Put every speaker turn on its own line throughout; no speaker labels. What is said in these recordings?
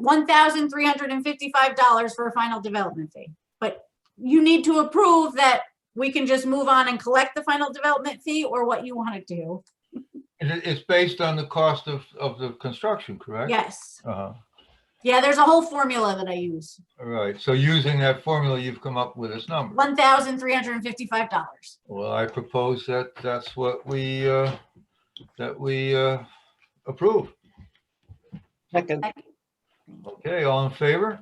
one thousand three hundred and fifty-five dollars for a final development fee. But you need to approve that we can just move on and collect the final development fee or what you want to do.
It, it- it's based on the cost of, of the construction, correct?
Yes.
Uh-huh,
Yeah, there's a whole formula that I use,
all right. So using that formula, you've come up with this number.
one thousand three hundred and fifty-five dollars.
Well, I propose that that's what we, uh, that we, uh, approve.
Second,
Okay, all in favor?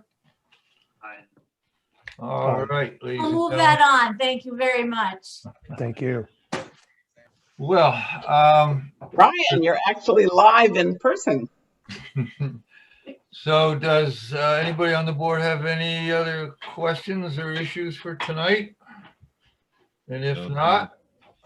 Aye.
All right, ladies
I'll
and
move
gentlemen.
that on. Thank you very much.
Thank you.
Well, um,
Brian, you're actually live in person.
so does, uh, anybody on the board have any other questions or issues for tonight? And if not,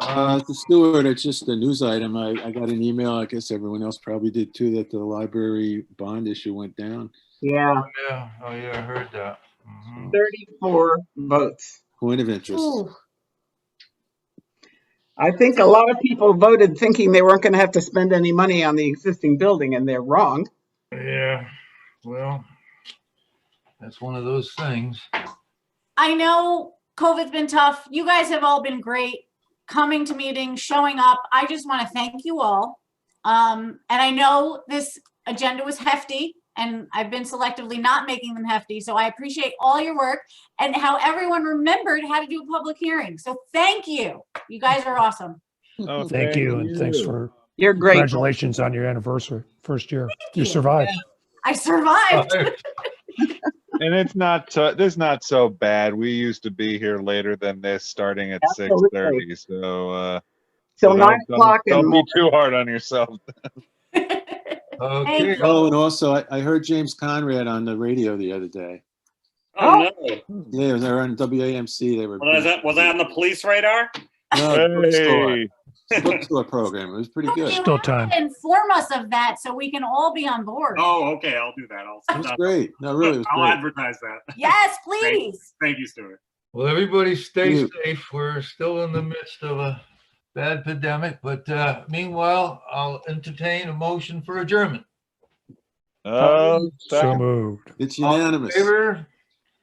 Uh, to Stewart, it's just a news item. I, I got an email, I guess everyone else probably did too, that the library bond issue went down.
Yeah,
yeah, oh yeah, I heard that. Mhm.
34 votes.
Point of interest.
Ooh,
I think a lot of people voted thinking they weren't going to have to spend any money on the existing building, and they're wrong.
Yeah, well, that's one of those things.
I know COVID's been tough. You guys have all been great coming to meetings, showing up. I just want to thank you all. Um, and I know this agenda was hefty and I've been selectively not making them hefty. So I appreciate all your work and how everyone remembered how to do a public hearing. So thank you. You guys are awesome.
Oh,
Thank you. And thanks for,
You're great.
congratulations on your anniversary, first year. You
you.
survived.
I
Oh,
survived.
And it's not, so- this is not so bad. We used to be here later than this, starting at six
Absolutely.
thirty, so, uh. so
Till
don't-
9
don't-
o'clock and
Don't be too hard on yourself.
Okay,
Oh, and also I, I heard James Conrad on the radio the other day.
Oh, no.
Yeah, they were on WAMC. They were.
Was that, was that on the police radar?
No, bookstore,
Hey,
bookstore program. It was pretty good. It
Still time.
Inform us of that so we can all be on board.
Oh, okay, I'll do that. I'll,
was great. No, really, it was
I'll
great.
advertise that.
Yes, please.
Thank you, Stuart.
well, everybody stay
You.
safe. We're still in the midst of a bad pandemic, but uh, meanwhile, I'll entertain a motion for adjournment.
Um,
So
second,
moved.
It's
All in
unanimous.
Favor?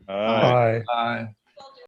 uh,
Bye.
Aye.